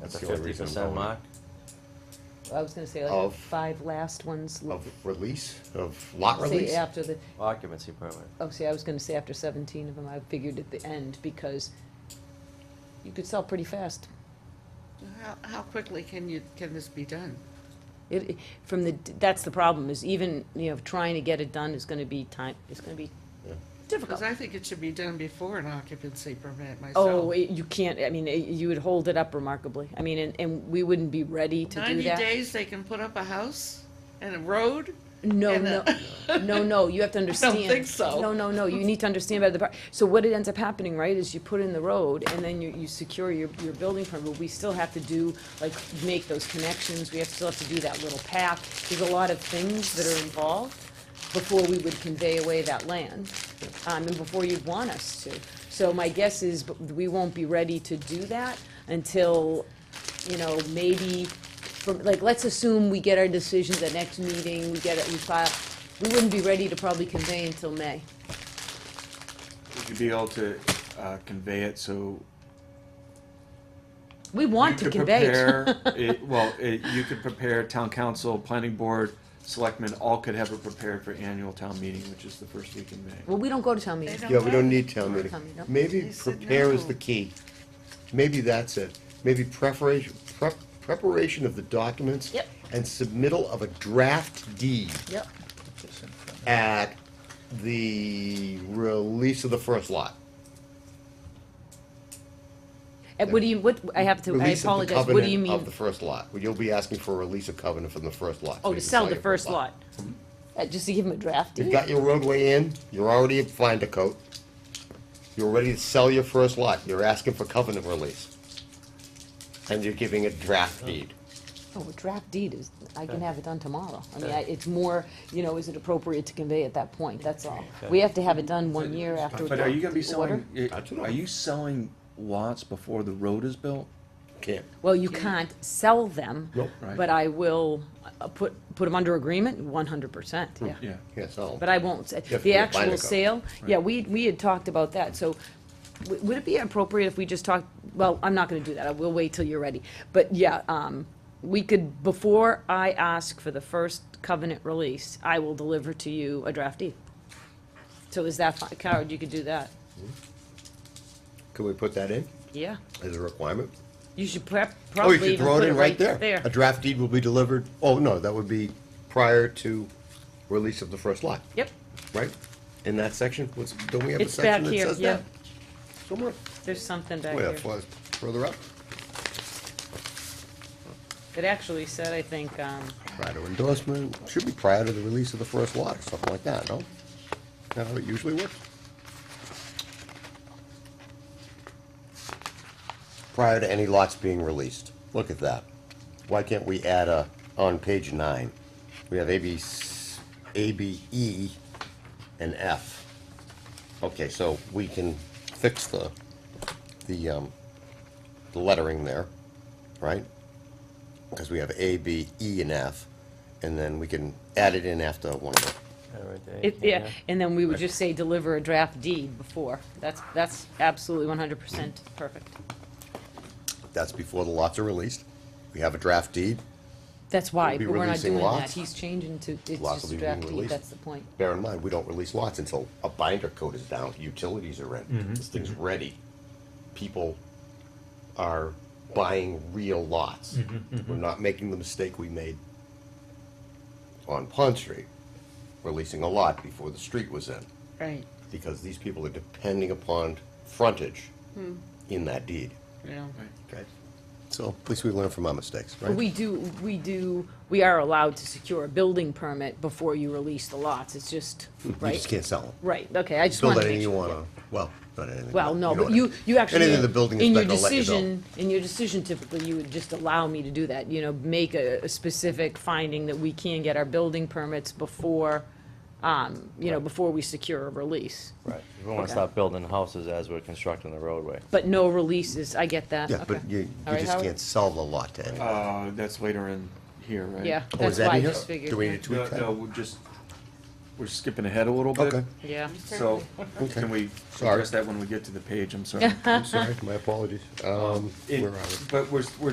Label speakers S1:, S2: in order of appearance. S1: That's
S2: the
S1: the only
S2: fifty
S1: reason I'm
S2: percent
S1: going.
S2: mark?
S3: I was gonna say like
S4: Of-
S3: the five last ones. l-
S4: Of release, of lot
S3: say
S4: release?
S3: After the,
S2: Occupancy permit.
S3: oh, see, I was gonna say after seventeen of them, I figured at the end, because you could sell pretty fast.
S5: How, how quickly can you, can this be done?
S3: It, it- from the, that's the problem, is even, you know, trying to get it done is gonna be time, is gonna be difficult.
S5: Because I think it should be done before an occupancy permit myself.
S3: Oh, it- you can't, I mean, it- you would hold it up remarkably. I mean, and, and we wouldn't be ready to do
S5: Ninety
S3: that.
S5: days, they can put up a house and a road?
S3: No,
S5: And,
S3: no,
S5: uh,
S3: no, no, you have to understand.
S5: think so.
S3: No, no, no, you need to understand about the, par- so what it ends up happening, right, is you put in the road, and then you, you secure your, your building permit, but we still have to do, like, make those connections, we have, still have to do that little path. There's a lot of things that are involved before we would convey away that land, um, and before you'd want us to. So my guess is, b- we won't be ready to do that until, you know, maybe, from, like, let's assume we get our decisions at next meeting, we get it, we file, we wouldn't be ready to probably convey until May.
S6: Would you be able to uh, convey it so?
S3: We want to
S6: you could
S3: convey it.
S6: prepare it- Well, it- you could prepare town council, planning board, selectmen, all could have it prepared for annual town meeting, which is the first week in May.
S3: Well, we don't go to town
S5: They
S3: meeting.
S4: Yeah, we don't need town
S3: Don't
S4: meeting.
S3: come, no.
S4: Maybe
S5: They said
S4: prepare is
S5: no.
S4: the key. Maybe that's it. Maybe preparation, prep, preparation of the documents.
S3: Yep.
S4: And submittal of a draft deed
S3: Yep,
S4: at the release of the first lot.
S3: and what do you, what, I have to, I
S4: Release of the
S3: apologize, what do you
S4: covenant
S3: mean?
S4: Of the first lot. You'll be asking for a release of covenant from the first lot. so
S3: Oh,
S4: you
S3: to
S4: can
S3: sell the
S4: your
S3: first lot, Uh, just to give him a draft
S4: You've
S3: deed?
S4: got your roadway in, you're already at Finder Coat. You're ready to sell your first lot, you're asking for covenant release. And you're giving a draft deed.
S3: Oh, a draft deed is, I can have it done tomorrow. I mean, I- it's more, you know, is it appropriate to convey at that point, that's all. We have to have it done one year after.
S6: But are you gonna be
S3: the order.
S6: selling, it-
S4: That's what I-
S6: are you selling lots before the road is built?
S4: Can't.
S3: Well, you can't sell them.
S4: Nope.
S6: Right.
S3: But I will uh, put, put them under agreement, one hundred percent, yeah.
S6: Yeah.
S4: Can't sell 'em.
S3: But I won't, say-
S4: have to
S3: the
S4: do a binder
S3: actual
S4: cover.
S3: sale, yeah, we, we had talked about that, so w- would it be appropriate if we just talked, well, I'm not gonna do that, I will wait till you're ready. But yeah, um, we could, before I ask for the first covenant release, I will deliver to you a draft deed. So is that, fi- Howard, you could do that,
S4: Can we put that in
S3: yeah,
S4: as a requirement?
S3: you should prep,
S4: Oh,
S3: probably
S4: you should
S3: even
S4: throw
S3: put
S4: it in right there. A
S3: there,
S4: draft deed will be delivered, oh, no, that would be prior to release of the first lot,
S3: yep,
S4: right? In that section, what's, don't we have a
S3: It's back
S4: section that
S3: here,
S4: says
S3: yeah.
S4: that? Somewhere,
S3: there's something back
S4: way
S3: here.
S4: up, far- further up,
S3: It actually said, I think, um,
S4: prior to endorsement, should be prior to the release of the first lot, or something like that, no? Is that how it usually works? Prior to any lots being released, look at that. Why can't we add a, on page nine, we have A, B, s- A, B, E, and F. Okay, so we can fix the, the, um, the lettering there, right? because we have A, B, E, and F, and then we can add it in after one of them.
S2: Yeah, right there,
S3: It,
S2: yeah.
S3: yeah, and then we would just say deliver a draft deed before. That's, that's absolutely one hundred percent perfect.
S4: That's before the lots are released. We have a draft deed,
S3: That's why,
S4: We'll be
S3: but we're not
S4: releasing
S3: doing that.
S4: lots.
S3: He's changing to,
S4: Lots
S3: it's
S4: will
S3: just
S4: be
S3: a
S4: being
S3: draft deed,
S4: released.
S3: that's the point.
S4: bear in mind, we don't release lots until a binder coat is down, utilities are in, this thing's ready. People are buying real lots. We're not making the mistake we made on Pond Street, releasing a lot before the street was in,
S5: Right,
S4: because these people are depending upon frontage in that deed.
S5: yeah.
S4: Okay. So at least we learn from our mistakes, right?
S3: But we do, we do, we are allowed to secure a building permit before you release the lots, it's just,
S4: You
S3: right?
S4: just can't sell them.
S3: Right, okay, I just
S4: Build
S3: wanted to
S4: anything
S3: make
S4: you
S3: sure.
S4: wanna, well, not anything.
S3: Well, no,
S4: know
S3: but
S4: what I
S3: you,
S4: mean.
S3: you actually.
S4: Anything the building
S3: in your
S4: inspector will let you build.
S3: decision- In your decision typically, you would just allow me to do that, you know, make a, a specific finding that we can get our building permits before, um, you know, before we secure a release.
S2: Right, we wanna stop building houses as we're constructing the roadway.
S3: But no releases, I get that,
S4: Yeah, but
S3: okay.
S4: you,
S3: All
S4: you
S3: right,
S4: just
S3: Howard?
S4: can't sell the lot to anyone.
S6: Uh, that's later in here, right?
S3: Yeah,
S4: Oh, is
S3: that's
S4: that
S3: why I
S4: in here?
S3: just figured.
S4: Do we
S3: yeah.
S4: need to-
S6: No, no, we're just, we're skipping ahead a little bit.
S4: Okay.
S3: Yeah,
S6: So,
S4: Okay.
S6: can we
S4: Sorry.
S6: address that when we get to the page, I'm sorry.
S4: I'm sorry, my apologies. Um,
S6: It-
S4: where are we?
S6: But we're, we're